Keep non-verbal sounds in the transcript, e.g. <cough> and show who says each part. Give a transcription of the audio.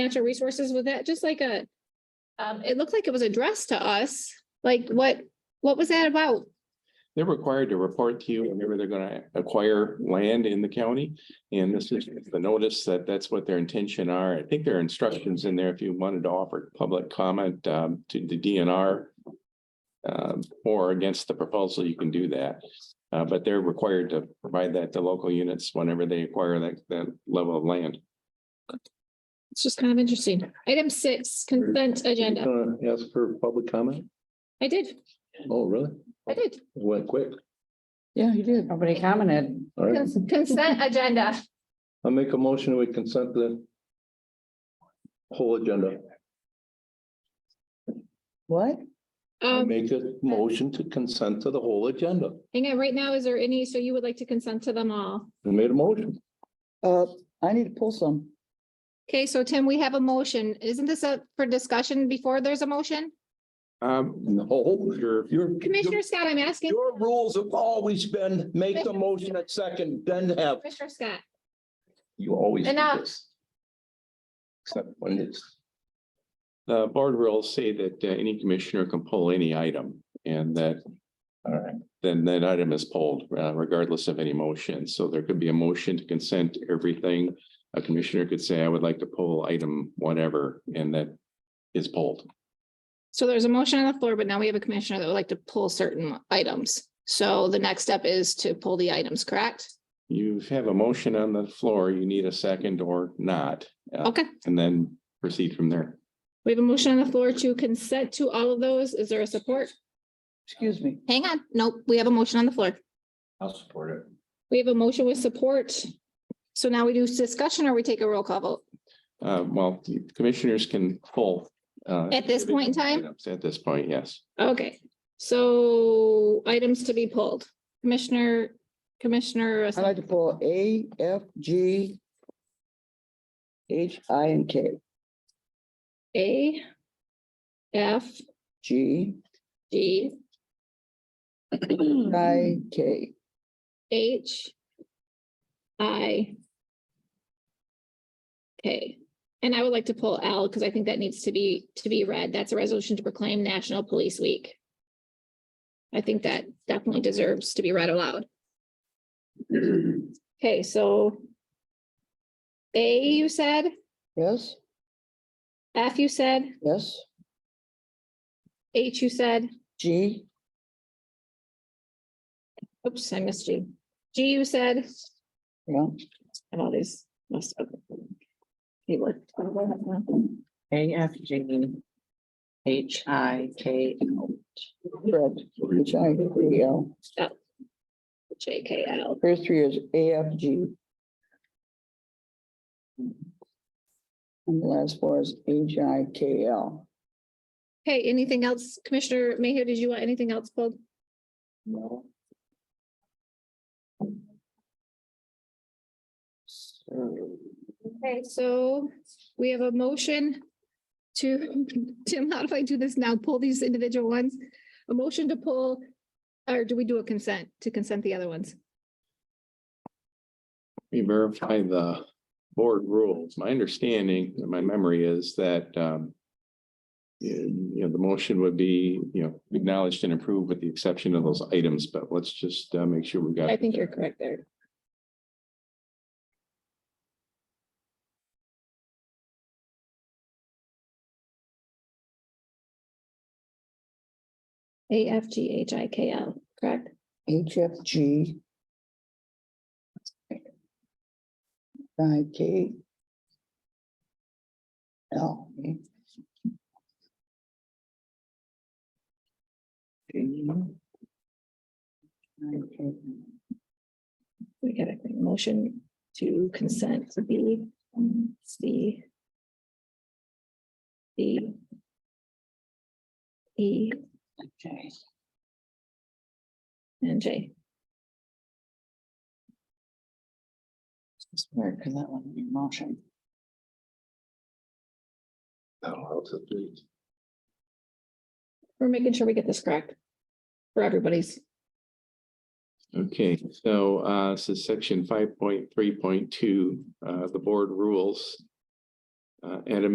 Speaker 1: financial resources, was that just like a, um, it looked like it was addressed to us, like what, what was that about?
Speaker 2: They're required to report to you whenever they're gonna acquire land in the county. And this is the notice that that's what their intention are. I think there are instructions in there if you wanted to offer public comment um, to the DNR. um, or against the proposal, you can do that. Uh, but they're required to provide that to local units whenever they acquire that, that level of land.
Speaker 1: It's just kind of interesting. Item six, consent agenda.
Speaker 3: Ask for public comment?
Speaker 1: I did,
Speaker 3: Oh, really?
Speaker 1: I did.
Speaker 3: Went quick.
Speaker 4: Yeah, you did. Nobody commented.
Speaker 3: All right.
Speaker 1: Cons- Consent agenda.
Speaker 3: I'll make a motion we consent the whole agenda.
Speaker 4: What?
Speaker 3: I'll
Speaker 1: Um,
Speaker 3: Make a motion to consent to the whole agenda.
Speaker 1: hang on, right now, is there any, so you would like to consent to them all?
Speaker 3: I made a motion.
Speaker 4: Uh, I need to pull some.
Speaker 1: Okay, so Tim, we have a motion. Isn't this up for discussion before there's a motion?
Speaker 2: Um,
Speaker 3: No,
Speaker 2: your,
Speaker 3: your,
Speaker 1: Commissioner Scott, I'm asking
Speaker 3: your rules have always been make the motion at second, then have,
Speaker 1: Commissioner Scott.
Speaker 3: you always. do
Speaker 1: Enough.
Speaker 3: this. Except when it's,
Speaker 2: the board rules say that uh, any commissioner can pull any item and that
Speaker 3: all right.
Speaker 2: then that item is pulled uh, regardless of any motion. So there could be a motion to consent everything. A commissioner could say, I would like to pull item whatever, and that is pulled.
Speaker 1: So there's a motion on the floor, but now we have a commissioner that would like to pull certain items. So the next step is to pull the items, correct?
Speaker 2: You have a motion on the floor, you need a second or not,
Speaker 1: Okay,
Speaker 2: and then proceed from there.
Speaker 1: we have a motion on the floor to consent to all of those. Is there a support?
Speaker 4: Excuse me.
Speaker 1: Hang on, nope, we have a motion on the floor.
Speaker 3: I'll support it.
Speaker 1: We have a motion with support. So now we do discussion or we take a roll call vote?
Speaker 2: Uh, Well, commissioners can pull. uh,
Speaker 1: At this point in time?
Speaker 2: items At this point, yes.
Speaker 1: Okay, so items to be pulled. Commissioner, Commissioner,
Speaker 4: I'd like to pull A, F, G, H, I, and K,
Speaker 1: A, F,
Speaker 4: G,
Speaker 1: G,
Speaker 4: I, K.
Speaker 1: H, I, K. And I would like to pull L because I think that needs to be, to be read. That's a resolution to proclaim National Police Week. I think that definitely deserves to be read aloud. Okay, so A, you said,
Speaker 4: Yes,
Speaker 1: F, you said,
Speaker 4: yes,
Speaker 1: H, you said,
Speaker 4: G,
Speaker 1: oops, I missed G. G, you said,
Speaker 4: yeah,
Speaker 1: I have all these messed up. You would.
Speaker 5: A F G H I K L.
Speaker 4: correct. H, I, K, E, L.
Speaker 1: J K L.
Speaker 4: First three is A, F, G. And the last four is H, I, K, E, L.
Speaker 1: Okay, anything else? Commissioner Mayhew, did you want anything else pulled?
Speaker 4: No.
Speaker 1: Okay, so we have a motion to, <laughs> Tim, how do I do this now? Pull these individual ones? A motion to pull, or do we do a consent to consent the other ones?
Speaker 2: We verify the board rules. My understanding, and my memory is that um. You you know, the motion would be, you know, acknowledged and approved with the exception of those items, but let's just uh make sure we got.
Speaker 1: I think you're correct there. A F G H I K L, correct?
Speaker 4: H F G. I K. L. okay. Okay.
Speaker 1: We got a motion to consent to B, C. D. E
Speaker 4: Okay.
Speaker 1: and J.
Speaker 4: It's weird because that one in motion.
Speaker 1: We're making sure we get this correct. For everybody's.
Speaker 2: Okay, so uh, so section five point three point two, uh, the board rules. Uh, at a